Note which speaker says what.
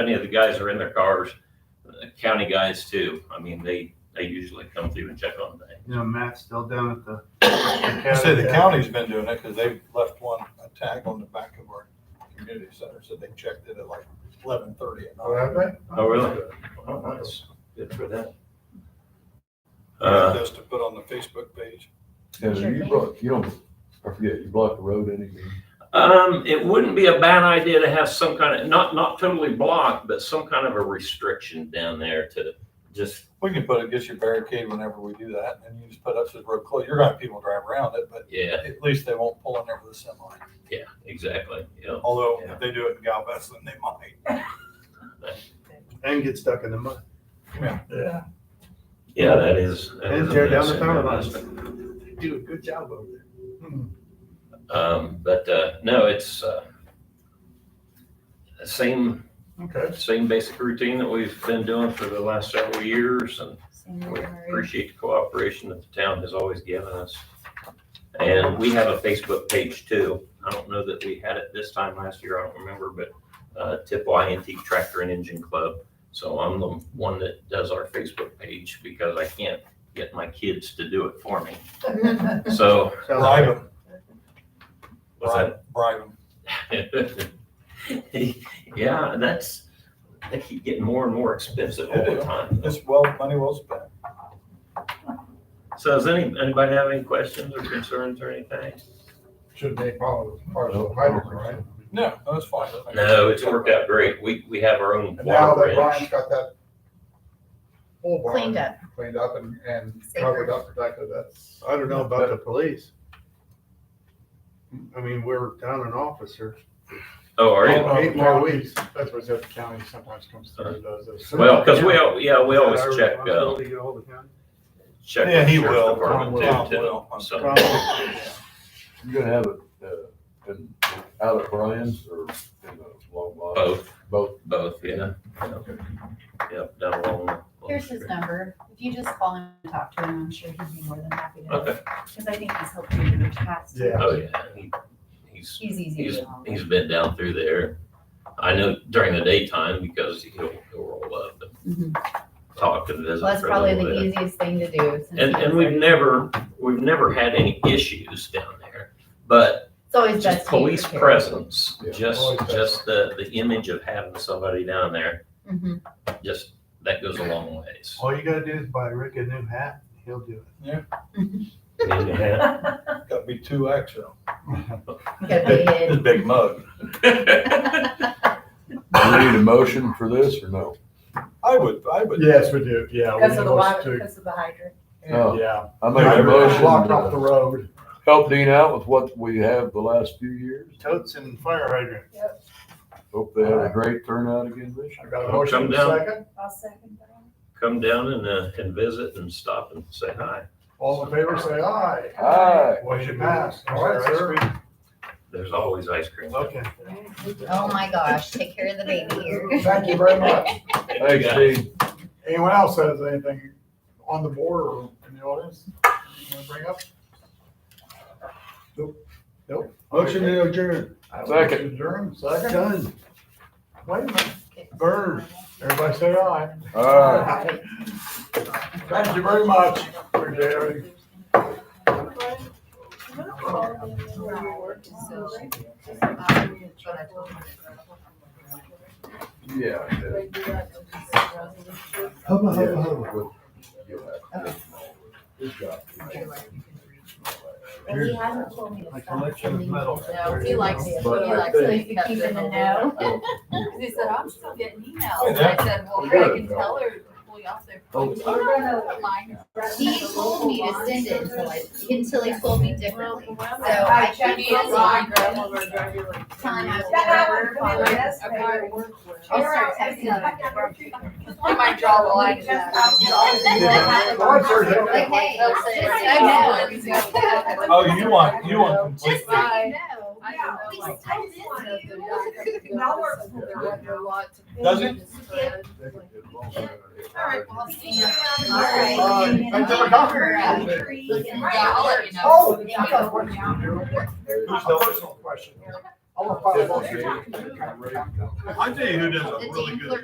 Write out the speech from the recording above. Speaker 1: Any of the guys are in their cars, uh, county guys too. I mean, they, they usually come through and check on things.
Speaker 2: You know, Matt's still down at the.
Speaker 3: I
Speaker 2: the
Speaker 3: say the county's been doing it because they've left one, a tag on the back of our community center, so they checked it at like eleven thirty at
Speaker 4: Oh,
Speaker 3: night.
Speaker 4: have they?
Speaker 1: Oh, really? Oh, nice. Good for them. Uh,
Speaker 3: Just to put on the Facebook page.
Speaker 5: Yeah,
Speaker 6: Sure
Speaker 5: you
Speaker 6: thing.
Speaker 5: block, you don't, I forget, you block the road anything.
Speaker 1: Um, it wouldn't be a bad idea to have some kind of, not, not totally blocked, but some kind of a restriction down there to just,
Speaker 3: We can put it, get you barricade whenever we do that, and you just put up, says road closed. You're gonna have people drive around it, but
Speaker 1: yeah,
Speaker 3: at least they won't pull in there with a semi.
Speaker 1: yeah, exactly, yeah.
Speaker 3: Although if they do it in Galveston, they might.
Speaker 2: And get stuck in the mud.
Speaker 3: Yeah.
Speaker 1: Yeah, that is. that is
Speaker 2: And
Speaker 1: a
Speaker 2: tear down
Speaker 1: mess
Speaker 2: the
Speaker 1: in
Speaker 2: power lines.
Speaker 1: Galveston.
Speaker 2: They Do a good job over there.
Speaker 1: Um, but, uh, no, it's, uh, the same,
Speaker 4: Okay.
Speaker 1: same basic routine that we've been doing for the last several years and
Speaker 6: Same
Speaker 1: We
Speaker 6: memory.
Speaker 1: appreciate the cooperation that the town has always given us. And we have a Facebook page too. I don't know that we had it this time last year, I don't remember, but uh, Tippwa Antique Tractor and Engine Club. So I'm the one that does our Facebook page because I can't get my kids to do it for me. So,
Speaker 2: Sounds
Speaker 3: Bribe
Speaker 2: like-
Speaker 3: them,
Speaker 1: what's that?
Speaker 3: bribe them.
Speaker 1: Yeah, that's, they keep getting more and more expensive all the time.
Speaker 3: It's well, money well spent.
Speaker 1: So does any, anybody have any questions or concerns or anything?
Speaker 4: Should they follow the partial hydrant, right?
Speaker 3: No, that's fine. I think
Speaker 1: No, it's worked out great. We, we have our own
Speaker 4: And now
Speaker 1: water
Speaker 4: that Brian's
Speaker 1: bridge.
Speaker 4: got that whole barn.
Speaker 6: Cleaned up.
Speaker 4: Cleaned up and, and
Speaker 6: Safer.
Speaker 4: covered up, protected, that's,
Speaker 2: I don't know about the police. I mean, we're down an officer.
Speaker 1: Oh, are you?
Speaker 2: Oh, Eight more weeks.
Speaker 7: That's what said the county sometimes comes through and does this.
Speaker 1: Well, because we, al- yeah, we
Speaker 2: Is that
Speaker 1: always
Speaker 2: our
Speaker 1: check, uh,
Speaker 2: responsibility to get ahold of him?
Speaker 1: check
Speaker 3: Yeah,
Speaker 1: the
Speaker 3: he
Speaker 1: sheriff's
Speaker 3: will.
Speaker 1: department
Speaker 3: Tom
Speaker 1: too,
Speaker 3: will.
Speaker 1: too. So,
Speaker 2: Probably.
Speaker 5: You're gonna have it, uh, in, out at Brian's or in the long box?
Speaker 1: both,
Speaker 5: Both.
Speaker 1: both, yeah. Yep, down along. the-
Speaker 6: Here's his number. If you just call him and talk to him, I'm sure he'd be more than happy to help.
Speaker 1: Okay,
Speaker 6: Because I think he's helped you in your past.
Speaker 4: yeah.
Speaker 1: oh, yeah. He- He's,
Speaker 6: He's easy to
Speaker 1: he's,
Speaker 6: get along with.
Speaker 1: he's been down through there. I know during the daytime because he'll, he'll roll up and talk and visit
Speaker 6: Mm-hmm. Well, that's
Speaker 1: for a
Speaker 6: probably
Speaker 1: little bit.
Speaker 6: the easiest thing to do. since
Speaker 1: And,
Speaker 6: he
Speaker 1: and we've
Speaker 6: was already-
Speaker 1: never, we've never had any issues down there, but
Speaker 6: It's always best.
Speaker 1: just
Speaker 6: to be
Speaker 1: police
Speaker 6: prepared.
Speaker 1: presence,
Speaker 5: Yeah.
Speaker 1: just,
Speaker 4: Always better.
Speaker 1: just the, the image of having somebody down there,
Speaker 6: Mhm.
Speaker 1: just, that goes a long ways.
Speaker 2: All you gotta do is buy Rick a new hat, he'll do it.
Speaker 1: Yeah.
Speaker 3: Gotta be two X though.
Speaker 6: Get a big head.
Speaker 3: Big mug.
Speaker 5: Do we need a motion for this or no?
Speaker 3: I would, I would.
Speaker 7: Yes, we do, yeah. we
Speaker 6: Because of the
Speaker 7: want
Speaker 6: water, because of the hydrant.
Speaker 5: No.
Speaker 7: to- Yeah.
Speaker 5: Oh. I make a motion
Speaker 7: Blocked off the
Speaker 5: to
Speaker 7: road.
Speaker 5: help Dean out with what we have the last few years.
Speaker 2: Totes and fire hydrant.
Speaker 5: Hope they have a great turnout again this
Speaker 7: I
Speaker 5: year.
Speaker 7: got a
Speaker 1: Come
Speaker 7: motion in a
Speaker 1: down.
Speaker 7: second.
Speaker 6: I'll second that.
Speaker 1: Come down and, uh, and visit and stop and say hi.
Speaker 7: All in favor, say aye.
Speaker 5: Aye.
Speaker 7: Motion passed. All right, sir.
Speaker 1: There's always ice cream.
Speaker 2: Okay.
Speaker 6: Oh, my gosh, take care of the baby here.
Speaker 7: Thank you very much.
Speaker 5: Thanks, Dean.
Speaker 7: Anyone else has anything on the board or in the audience? you wanna Bring up?
Speaker 2: Motion to adjourn.
Speaker 5: Second.
Speaker 7: Adjourn, second.
Speaker 2: Done.
Speaker 7: Wait a minute. Bird. Everybody say aye.
Speaker 5: All right.
Speaker 7: Thank you very much. Appreciate it.
Speaker 5: Yeah. I did.
Speaker 2: Hubba,
Speaker 5: Yeah.
Speaker 2: hubba, hubba.
Speaker 5: You'll have to get them all. Good job.
Speaker 6: And he hasn't told me to
Speaker 2: My
Speaker 6: stop.
Speaker 2: collection of medals.
Speaker 8: No, he likes it. He
Speaker 5: But I
Speaker 8: likes it.
Speaker 6: think-
Speaker 8: He keeps it in the know.
Speaker 5: Well,
Speaker 8: Because he said, "Oh, I'm still getting emails. And I said, well,
Speaker 5: Yeah.
Speaker 8: Greg can tell her, well, y'all said.
Speaker 5: Oh.
Speaker 6: He told me to send it until I, until he told me differently. So I
Speaker 8: I
Speaker 6: checked
Speaker 8: checked
Speaker 6: his
Speaker 8: my
Speaker 6: line,
Speaker 8: grandmother, drive you like.
Speaker 6: telling him I was never following.
Speaker 8: Like,
Speaker 6: I'll start texting him.
Speaker 8: I might draw the line.
Speaker 3: Oh,
Speaker 7: Why, sir, they don't-
Speaker 6: Like, hey, just so you know.
Speaker 8: That's it.
Speaker 3: Oh, you want, you want complete.
Speaker 6: Just so you know.
Speaker 8: I don't know,
Speaker 6: We
Speaker 8: like,
Speaker 6: still
Speaker 8: I just wanna
Speaker 6: did
Speaker 8: do
Speaker 6: it.
Speaker 8: that. Now we're- They're under a lot to-
Speaker 3: Does it?
Speaker 5: they can get along.
Speaker 8: All right, well, I'll see you.
Speaker 6: All right.
Speaker 7: Bye. Thanks for coming.
Speaker 6: Looking at
Speaker 8: Yeah, I'll
Speaker 6: that.
Speaker 8: let you know.
Speaker 7: Oh,
Speaker 6: Yeah.
Speaker 7: Here's my personal question.
Speaker 9: I want
Speaker 10: Yeah,
Speaker 9: five
Speaker 10: well,
Speaker 9: bucks.
Speaker 10: yeah.
Speaker 9: I
Speaker 7: I tell you who does a
Speaker 3: The
Speaker 7: really
Speaker 3: Dan
Speaker 7: good
Speaker 3: Clerk